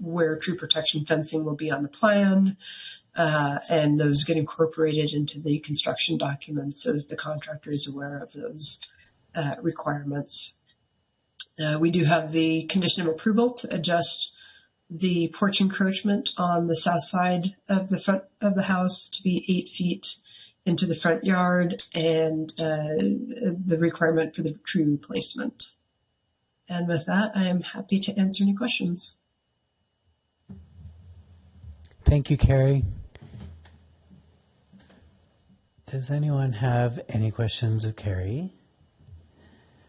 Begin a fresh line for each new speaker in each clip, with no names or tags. where tree protection fencing will be on the plan, uh, and those get incorporated into the construction documents so that the contractor is aware of those uh, requirements. Uh, we do have the condition of approval to adjust the porch encroachment on the south side of the front of the house to be eight feet into the front yard and uh, the requirement for the tree replacement. And with that, I am happy to answer any questions.
Thank you, Carrie. Does anyone have any questions of Carrie?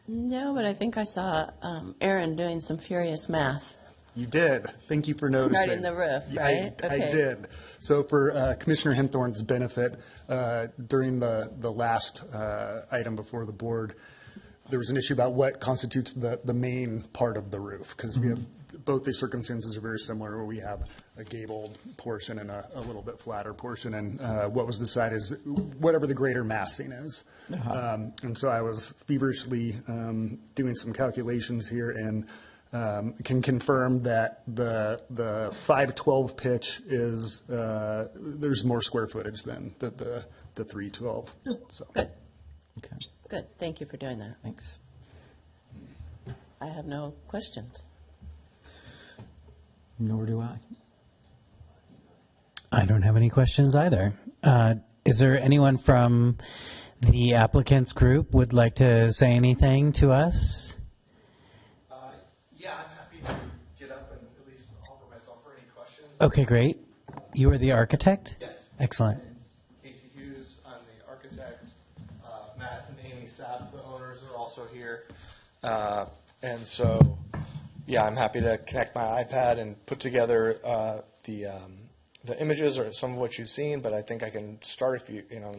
No, but I think I saw um, Aaron doing some furious math.
You did. Thank you for noticing.
the roof,
Yeah,
right?
I, I
Okay.
did. So for uh, Commissioner Henthorne's benefit, uh, during the, the last uh, item before the board, there was an issue about what constitutes the, the main part of the roof, because we have, both these circumstances are very similar, where we have a gabled portion and a, a little bit flatter portion, and uh, what was decided is whatever the greater massing is. Um, And so I was feverishly um, doing some calculations here, and um, can confirm that the, the 512 pitch is, uh, there's more square footage than the, the the 312. So,
Good,
Okay,
good. Thank you for doing that.
thanks.
I have no questions.
Nor do I. I don't have any questions either. Uh, is there anyone from the applicants group would like to say anything to us?
Uh, Yeah, I'm happy to get up and at least offer myself for any questions.
Okay, great. You are the architect?
Yes.
Excellent.
Casey Hughes, I'm the architect. Uh, Matt and Amy Sapp, the owners, are also here. Uh, And so, yeah, I'm happy to connect my iPad and put together uh, the, um, the images or some of what you've seen, but I think I can start if you, you know,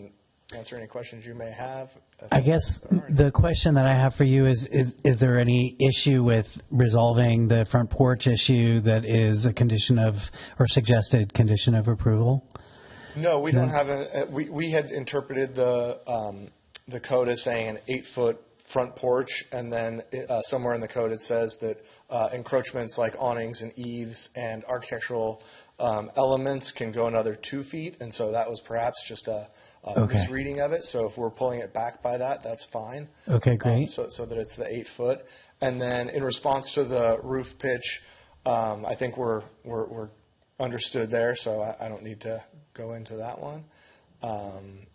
answer any questions you may have. if
I guess
there are any.
the question that I have for you is, is, is there any issue with resolving the front porch issue that is a condition of, or suggested condition of approval?
No, we don't have a, uh, we, we had interpreted the, um, the code as saying an eight-foot front porch, and then, uh, somewhere in the code, it says that, uh, encroachments like awnings and eaves and architectural, um, elements can go another two feet, and so that was perhaps just a, a
Okay.
misreading of it, so if we're pulling it back by that, that's fine.
Okay,
Um,
great.
So, so that it's the eight foot, and then in response to the roof pitch, um, I think we're, we're, we're understood there, so I, I don't need to go into that one. Um,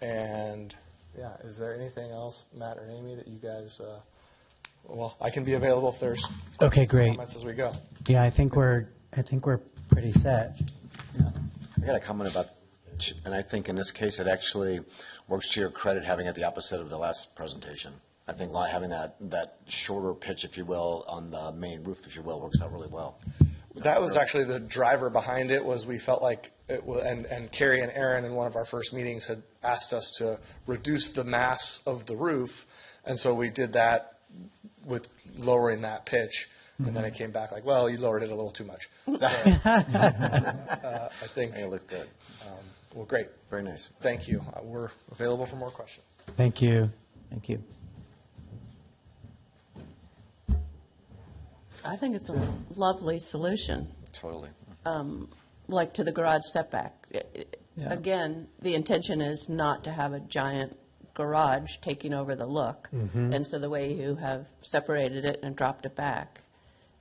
and yeah, is there anything else, Matt or Amy, that you guys? Uh, well, I can be available if there's
Okay, great.
comments as we go.
Yeah, I think we're, I think we're pretty set.
I got a comment about, and I think in this case, it actually works to your credit having it the opposite of the last presentation. I think li- having that, that shorter pitch, if you will, on the main roof, if you will, works out really well.
That was actually the driver behind it. Was we felt like it was, and and Carrie and Aaron in one of our first meetings had asked us to reduce the mass of the roof, and so we did that with lowering that pitch, and then it came back like, well, you lowered it a little too much. So, uh, I think.
It looked good.
Well, great.
Very nice.
Thank you. Uh, We're available for more questions.
Thank you.
Thank you.
I think it's a lovely solution, Um,
Totally.
like to the garage setback. I- I-
Yeah.
Again, the intention is not to have a giant garage taking over the look.
Mm-hmm.
And so the way you have separated it and dropped it back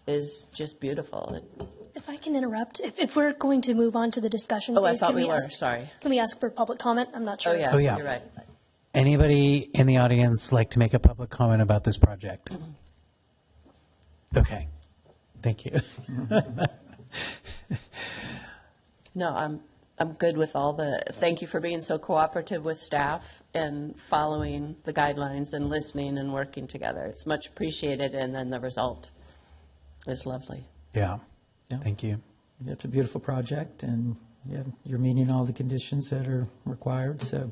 is just beautiful. It-
If I can interrupt, if, if we're going to move on to the discussion,
Oh, I
phase,
thought
can
we were,
ask-
sorry.
Can we ask for public comment? I'm not
Oh,
sure.
yeah,
Oh, yeah.
you're right.
Anybody in the audience like to make a public comment about this project? Okay, thank you.
No, I'm, I'm good with all the, thank you for being so cooperative with staff and following the guidelines and listening and working together. It's much appreciated, and then the result is lovely.
Yeah,
Yeah.
thank you.
Yeah, It's a beautiful project, and yeah, you're meeting all the conditions that are required, so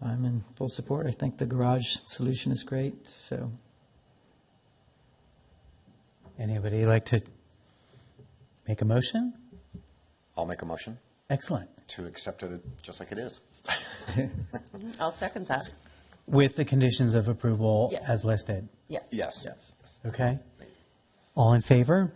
I'm in full support. I think the garage solution is great, so
Anybody like to make a motion?
I'll make a motion
Excellent.
to accept it just like it is.
I'll second that.
With the conditions of approval
Yes.
as listed,
Yes.
Yes.
okay? All in favor?